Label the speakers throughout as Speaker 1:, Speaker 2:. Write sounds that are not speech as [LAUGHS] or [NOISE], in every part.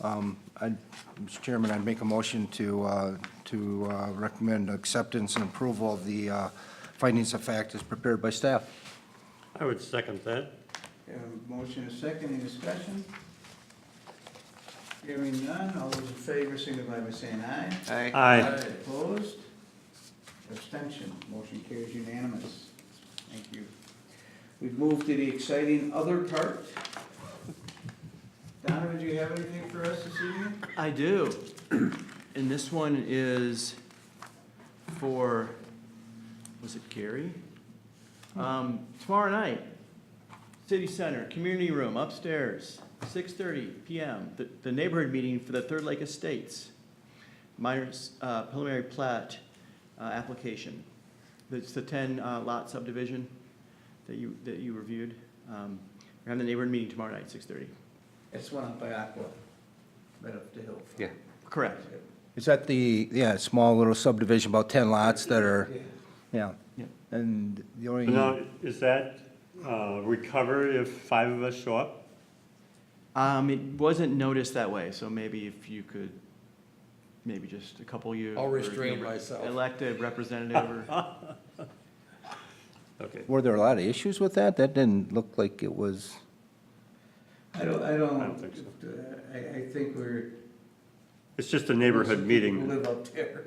Speaker 1: Um, I- Mr. Chairman, I'd make a motion to, uh, to uh, recommend acceptance and approval of the uh, findings of fact as prepared by staff.
Speaker 2: I would second that.
Speaker 3: We have a motion and a second, any discussion? Hearing none, all those in favor signify by saying aye.
Speaker 2: Aye.
Speaker 3: Opposed? Abstention, motion carries unanimous. Thank you. We've moved to the exciting other part. Donovan, do you have anything for us this evening?
Speaker 4: I do. [CLEARS THROAT] And this one is for, was it Gary? Um, tomorrow night, City Center, Community Room upstairs, six thirty PM, the, the neighborhood meeting for the Third Lake Estates. Minor, uh, preliminary plat, uh, application. It's the ten uh, lot subdivision that you, that you reviewed. Um, we're having the neighborhood meeting tomorrow night, six thirty.
Speaker 3: It's one up by Aqua, right up the hill.
Speaker 5: Yeah.
Speaker 4: Correct.
Speaker 1: Is that the, yeah, small little subdivision, about 10 lots that are,
Speaker 3: Yeah.
Speaker 1: yeah.
Speaker 4: Yeah.
Speaker 1: And the only.
Speaker 2: Now, is that uh, recovered if five of us show up?
Speaker 4: Um, it wasn't noticed that way, so maybe if you could, maybe just a couple you.
Speaker 6: I'll
Speaker 4: or, you know,
Speaker 6: restrain
Speaker 4: re-
Speaker 6: myself.
Speaker 4: Elected
Speaker 6: [LAUGHS]
Speaker 4: representative or,
Speaker 2: Okay.
Speaker 1: Were there a lot of issues with that? That didn't look like it was,
Speaker 3: I don't, I don't.
Speaker 2: I don't think so.
Speaker 3: uh, I, I think we're.
Speaker 2: It's just a neighborhood
Speaker 3: People
Speaker 2: meeting.
Speaker 3: Live up there,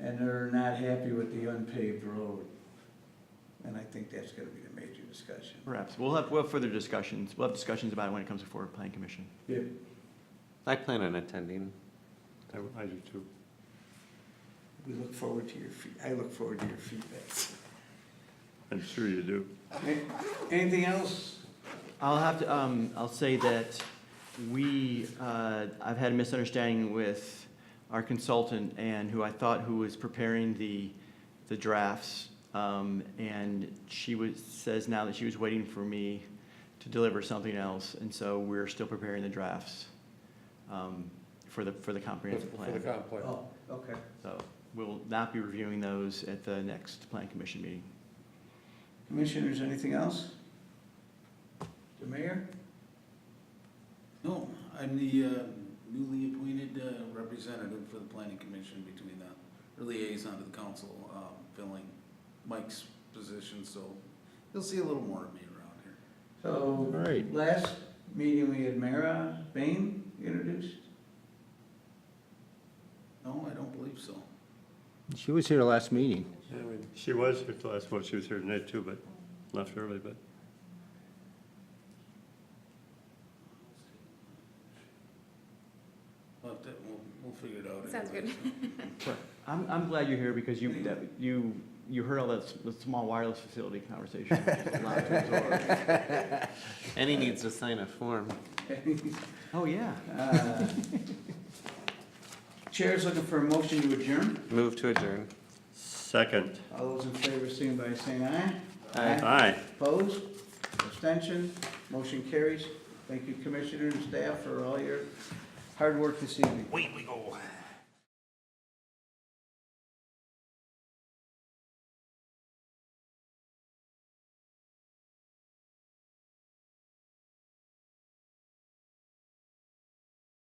Speaker 3: and they're not happy with the unpaved road. And I think that's gonna be the major discussion.
Speaker 4: perhaps, we'll have, we'll have further discussions, we'll have discussions about it when it comes before planning commission.
Speaker 3: Yeah.
Speaker 5: I plan on attending.
Speaker 2: I I do too.
Speaker 3: We look forward to your feed, I look forward to your feedback.
Speaker 2: I'm sure you do.
Speaker 3: Anything else?
Speaker 4: I'll have to, um, I'll say that we, uh, I've had a misunderstanding with our consultant and who I thought who was preparing the, the drafts. Um, and she was, says now that she was waiting for me to deliver something else, and so we're still preparing the drafts, um, for the, for the comprehensive
Speaker 6: For the
Speaker 4: plan.
Speaker 6: comp plan.
Speaker 3: Oh, okay.
Speaker 4: So we'll not be reviewing those at the next plan commission meeting.
Speaker 3: Commissioners, anything else? The mayor?
Speaker 7: No, I'm the uh, newly appointed uh, representative for the planning commission between the, or liaison to the council, um, filling Mike's position, so you'll see a little more of me around here.
Speaker 3: So,
Speaker 1: Right.
Speaker 3: last meeting we had Mara Bain introduced. [LAUGHS]
Speaker 7: No, I don't believe so.
Speaker 1: she was here last meeting.
Speaker 2: Yeah, we- She was here last, well, she was here tonight too, but left early, but
Speaker 7: But that- we'll, we'll figure it out.
Speaker 8: Sounds
Speaker 7: anyway.
Speaker 4: I'm, I'm glad you're here because you, that, you, you heard all that, s- the small wireless facility conversation. which is a lot to absorb.
Speaker 5: And he needs to sign a form.
Speaker 4: Oh, yeah.
Speaker 3: Uh, Chair's looking for a motion to adjourn.
Speaker 5: Move to adjourn.
Speaker 2: second.
Speaker 3: All those in favor, signify by saying aye.
Speaker 2: Aye.
Speaker 3: Opposed? Abstention? Motion carries. Thank you, Commissioner and staff, for all your hard work this evening.
Speaker 2: Wait, we go.